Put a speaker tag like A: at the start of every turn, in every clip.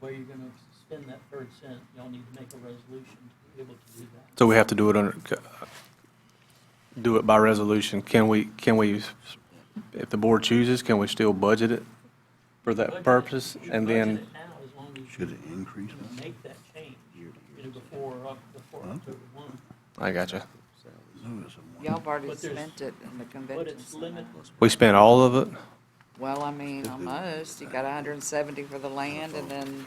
A: where you're gonna spend that third cent, y'all need to make a resolution to be able to do that.
B: So we have to do it under, do it by resolution. Can we, can we, if the board chooses, can we still budget it for
A: Budget
B: that
A: it.
B: purpose?
A: You
B: And
A: budget
B: then,
A: it now as long as you
C: Should it increase
A: you know,
C: that?
A: Make that change, you know, before, Oc- before
C: Huh?
A: October one.
B: I gotcha.
C: No, it's a
D: Y'all have already
A: But there's-
D: spent it in the
A: But
D: convention
A: it's
D: center.
A: limited,
B: We spent all of it?
D: Well, I mean, almost. You got hundred and seventy for the land and then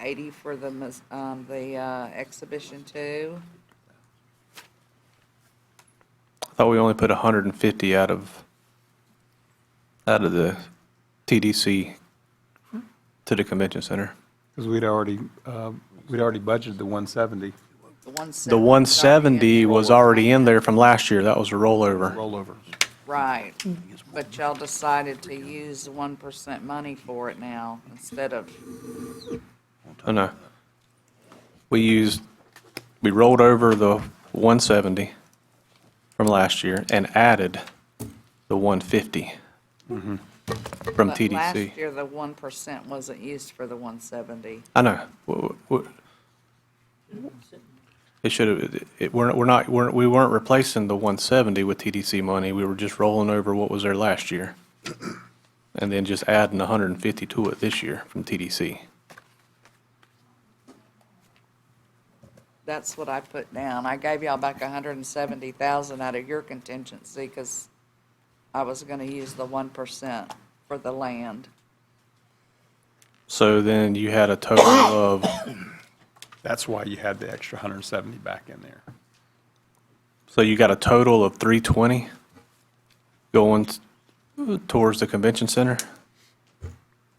D: eighty for the, mus- um, the, uh, exhibition too.
B: I thought we only put 150 out of, out of the TDC to the convention center.
E: Because we'd already, uh, we'd already budgeted the 170
D: The one seventy.
B: The 170 was already in there from last year. That was a rollover.
E: rollover.
D: Right, but y'all decided to use the one percent money for it now instead of,
B: Oh, no. We used, we rolled over the 170 from last year and added the 150 from
D: Mm-hmm. but last
B: TDC.
D: year, the one percent wasn't used for the one seventy.
B: I know. W- w- It should have, it, we're, we're not, we're, we weren't replacing the 170 with TDC money. We were just rolling over what was there last year. And then just adding 150 to it this year from TDC.
D: That's what I put down. I gave y'all back a hundred and seventy thousand out of your contingency, cause I was gonna use the one percent for the land.
B: So then you had a total of,
E: That's why you had the extra 170 back in there.
B: so you got a total of 320 going t- towards the convention center?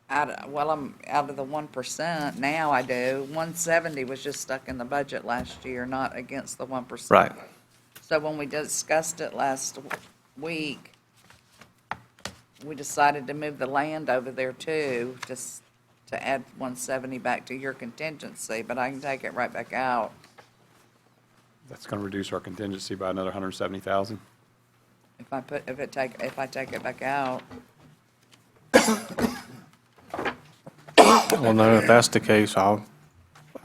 D: Out, of- well, I'm out of the one percent now I do. One seventy was just stuck in the budget last year, not against the one percent.
B: Right.
D: So when we discussed it last w- week, we decided to move the land over there too, just to add one seventy back to your contingency, but I can take it right back out.
E: That's going to reduce our contingency by another 170,000.
D: If I put, if it take, if I take it back out,
B: Well, no, if that's the case, I'll,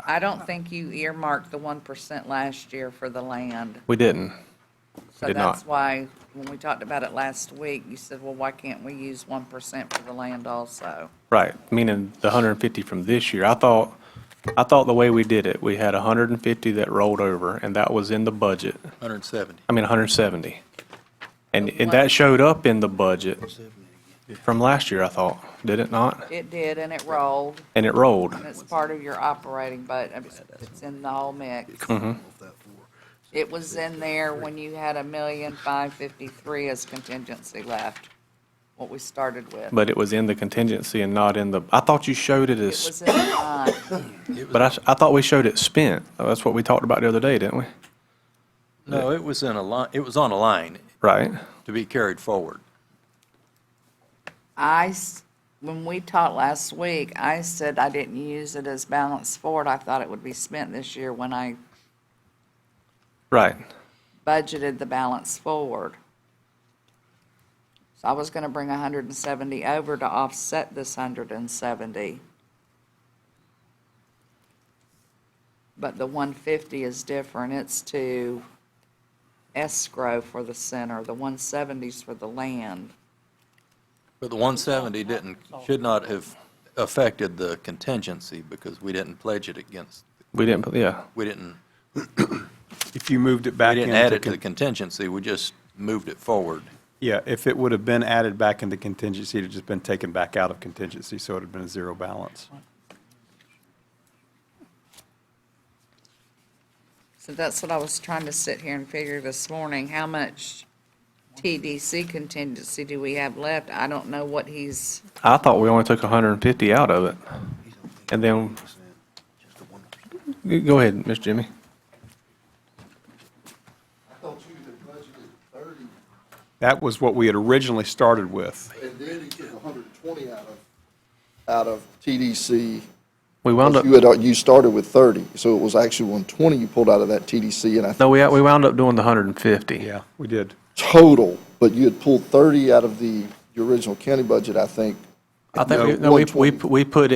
D: I don't think you earmarked the one percent last year for the land.
B: we didn't.
D: So
B: Did not.
D: that's why, when we talked about it last week, you said, well, why can't we use one percent for the land also?
B: Right, meaning the hundred and fifty from this year. I thought, I thought the way we did it, we had hundred and fifty that rolled over, and that was in the budget.
C: 170.
B: I mean, hundred and seventy. And, and that showed up in the budget from last year, I thought, did it not?
D: It did, and it rolled,
B: And it rolled.
D: and it's part of your operating, but it's- it's in the whole mix.
B: Mm-hmm.
D: It was in there when you had a million five fifty-three as contingency left, what we started with.
B: But it was in the contingency and not in the, I thought you showed it
D: It
B: as,
D: was in the line.
B: but I, I thought we showed it spent. Oh, That's what we talked about the other day, didn't we?
F: No, it was in a line, it was on a line
B: Right?
F: to be carried forward.
D: I, s- when we talked last week, I said I didn't use it as balance forward. I thought it would be spent this year when I
B: Right.
D: budgeted the balance forward. So I was gonna bring hundred and seventy over to offset this hundred and seventy. But the one fifty is different, it's to escrow for the center, the one seventies for the land.
F: But the 170 didn't, should not have affected the contingency because we didn't pledge it against,
B: We didn't, put- yeah.
F: we didn't,
E: If you moved it
F: we
E: back
F: didn't add
E: into,
F: it to the
E: con-
F: contingency, we just moved it forward.
E: yeah, if it would have been added back into contingency, it'd just been taken back out of contingency, so it'd have been a zero balance.
D: So that's what I was trying to sit here and figure this morning, how much TDC contingency do we have left? I don't know what he's.
B: I thought we only took hundred and fifty out of it. And then Go ahead, Mr. Jimmy.
G: I thought you had budgeted thirty,
E: That was what we had originally started with.
G: and then you took hundred and twenty out of, out of TDC.
B: We wound up,
G: You had, you started with thirty, so it was actually one twenty you pulled out of that TDC, and I
B: no,
G: think
B: we, we wound up doing the 150.
E: Yeah, we did.
G: total, but you had pulled thirty out of the, your original county budget, I think,
B: I think,
E: No,
B: we- no, we, we,
G: 120.
B: we put